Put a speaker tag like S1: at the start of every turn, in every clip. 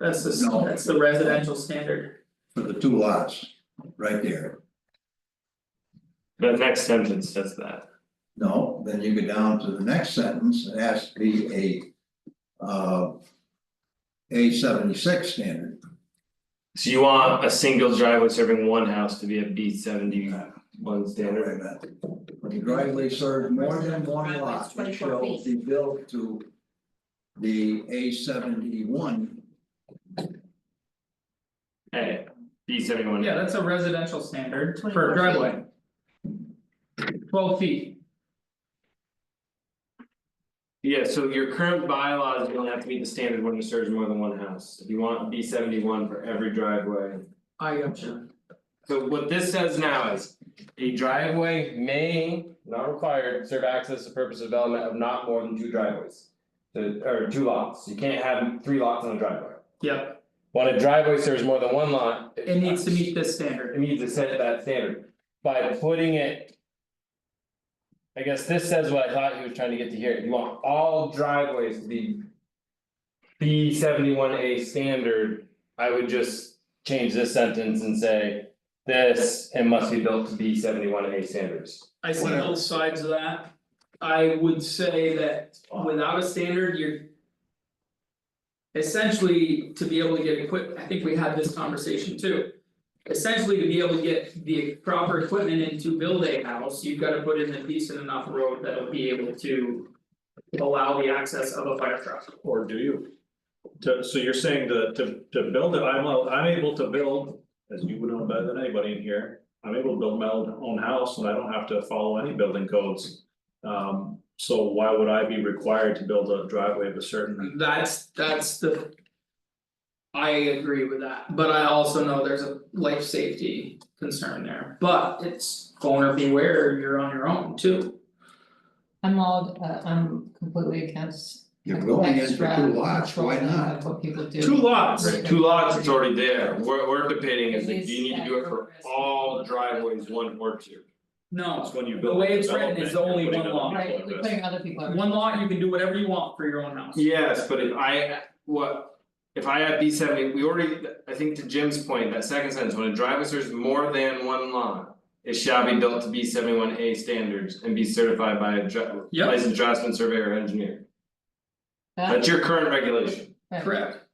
S1: That's the, s-
S2: No.
S1: that's the residential standard.
S2: for the two lots, right there.
S3: The next sentence says that.
S2: No, then you go down to the next sentence, it has to be a. Uh. A seventy-six standard,
S3: So you want a single driveway serving one house to be a B seventy one
S2: Wait a
S3: standard?
S2: minute. When the driveway serves more than one lot, it
S4: Driveway's 24
S2: shall be built to. The A seventy-one,
S3: Hey, B seventy one.
S1: Yeah, that's a residential standard for
S4: 24
S1: a
S4: feet.
S1: driveway. Twelve feet,
S3: Yeah, so your current bylaws don't have to meet the standard when it serves more than one house, if you want B seventy one for every driveway.
S1: I got you.
S3: So what this says now is, a driveway may, not required, serve access to purpose of development of not more than two driveways. The- or two lots, you can't have three lots on a driveway,
S1: Yep,
S3: when a driveway serves more than one lot.
S1: it needs to meet this standard.
S3: It needs to set that standard by putting it. I guess this says what I thought he was trying to get to here, you want all driveways to be. B seventy one A standard, I would just change this sentence and say. This and must be built to B seventy one A standards.
S1: I see
S2: Whatever.
S1: both sides of that. I would say that without a standard, you're. Essentially, to be able to get equip, I think we had this conversation too. Essentially, to be able to get the proper equipment in to build a house, you've gotta put in a decent enough road that'll be able to. Allow the access of a fire truck.
S5: Or do you? To, so you're saying to, to, to build it, I'm, a- I'm able to build, as you would know better than anybody in here. I'm able to build my own, own house and I don't have to follow any building codes. Um, so why would I be required to build a driveway of a certain?
S1: That's that's the. I agree with that, but I also know there's a life safety concern there, but it's owner beware, you're on your own too.
S4: I'm all, uh, I'm completely against.
S2: you're going in for two lots, why
S4: extra control
S2: not?
S4: of What people do.
S1: Two lots,
S4: Right.
S3: Two lots, it's already there, we're we're debating is like,
S4: It
S3: do you need to do it for
S4: is-
S3: all driveways, one or two?
S1: no,
S5: That's when you
S1: The
S5: build
S1: way
S5: a
S1: it's written,
S5: development.
S1: it's
S5: you're
S1: only
S5: putting
S1: one
S5: other
S1: lot.
S5: people
S4: Right,
S5: at
S4: we're
S5: risk.
S4: putting other people. at
S1: one
S4: risk.
S1: lot, you can do whatever you want for your own house.
S3: Yes, but if I, what, if I have B seventy, we already, I think to Jim's point, that second sentence, when a driveway serves more than one lot. It shall be built to B seventy one A standards and be certified by a dra-
S1: Yep.
S3: licensed draftsman, surveyor, or engineer,
S4: That-
S3: that's your current regulation.
S4: right.
S1: Correct,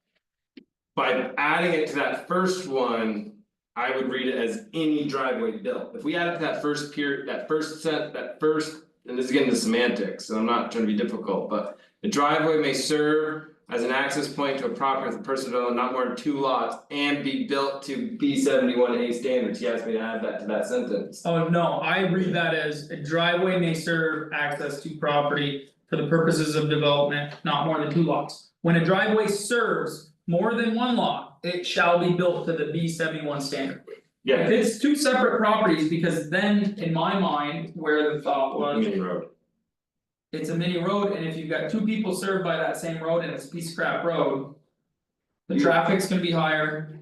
S3: By adding it to that first one, I would read it as any driveway built, if we add it to that first period, that first set, that first. And this is getting to semantics, so I'm not trying to be difficult, but the driveway may serve as an access point to a property with person development not more than two lots. And be built to B seventy one A standards, he asked me to add that to that sentence.
S1: oh no, I read that as a driveway may serve access to property for the purposes of development, not more than two lots. When a driveway serves more than one lot, it shall be built to the B seventy one standard. If
S3: Yeah,
S1: it's two separate properties, because then in my mind, where the thought was,
S3: Union Road,
S1: it's a mini road, and if you've got two people served by that same road and it's a piece of crap road. The
S3: Yeah.
S1: traffic's gonna be higher.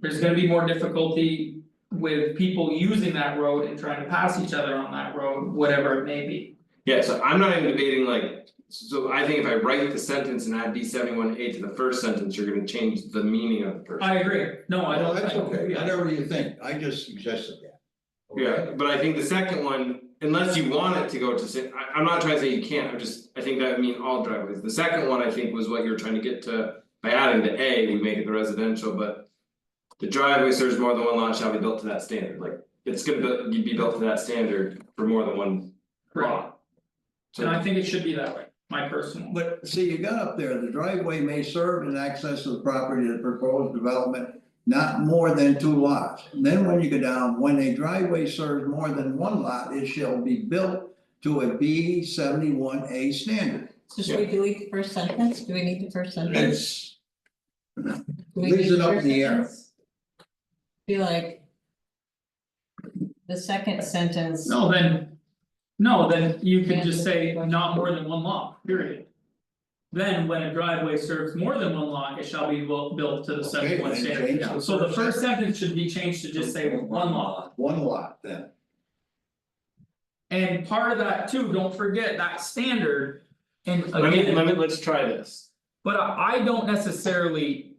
S1: There's gonna be more difficulty with people using that road and trying to pass each other on that road, whatever it may be.
S3: yeah, so I'm not even debating like, so I think if I write the sentence and add B seventy one A to the first sentence, you're gonna change the meaning of the first.
S1: I agree, no, I
S2: Well,
S1: don't,
S2: that's
S1: I don't
S2: okay,
S1: agree.
S2: whatever you think, I just suggested that.
S3: Yeah, but I think the second one, unless you want it to go to, si- I I'm not trying to say you can't, I'm just, I think that would mean all driveways, the second one, I think, was what you were trying to get to. By adding the A, we make it the residential, but. The driveway serves more than one lot shall be built to that standard, like, it's gonna be, you'd be built to that standard for more than one
S1: Right.
S3: lot.
S1: And I
S3: So,
S1: think it should be that way, my personal.
S2: But see, you got up there, the driveway may serve in access to the property of the proposed development, not more than two lots. And Then when you go down, when a driveway serves more than one lot, it shall be built to a B seventy-one A standard.
S4: So should we delete the first sentence? Do we need the first sentence?
S2: It's,
S4: Do we
S2: leaves
S4: need
S2: it up
S4: first
S2: in the air.
S4: sentence? Be like. The second sentence.
S1: No, then, no, then you could just say not more than one lot, period. Then when a driveway serves more than one lot, it shall be bu- built to the seventy one
S2: Okay, then
S1: standard,
S2: change the
S1: so the
S2: first
S1: first sentence should be changed to just say one lot.
S2: one lot then,
S1: And part of that too, don't forget that standard, and
S3: let me,
S1: again,
S3: let me, let's try this.
S1: but I I don't necessarily.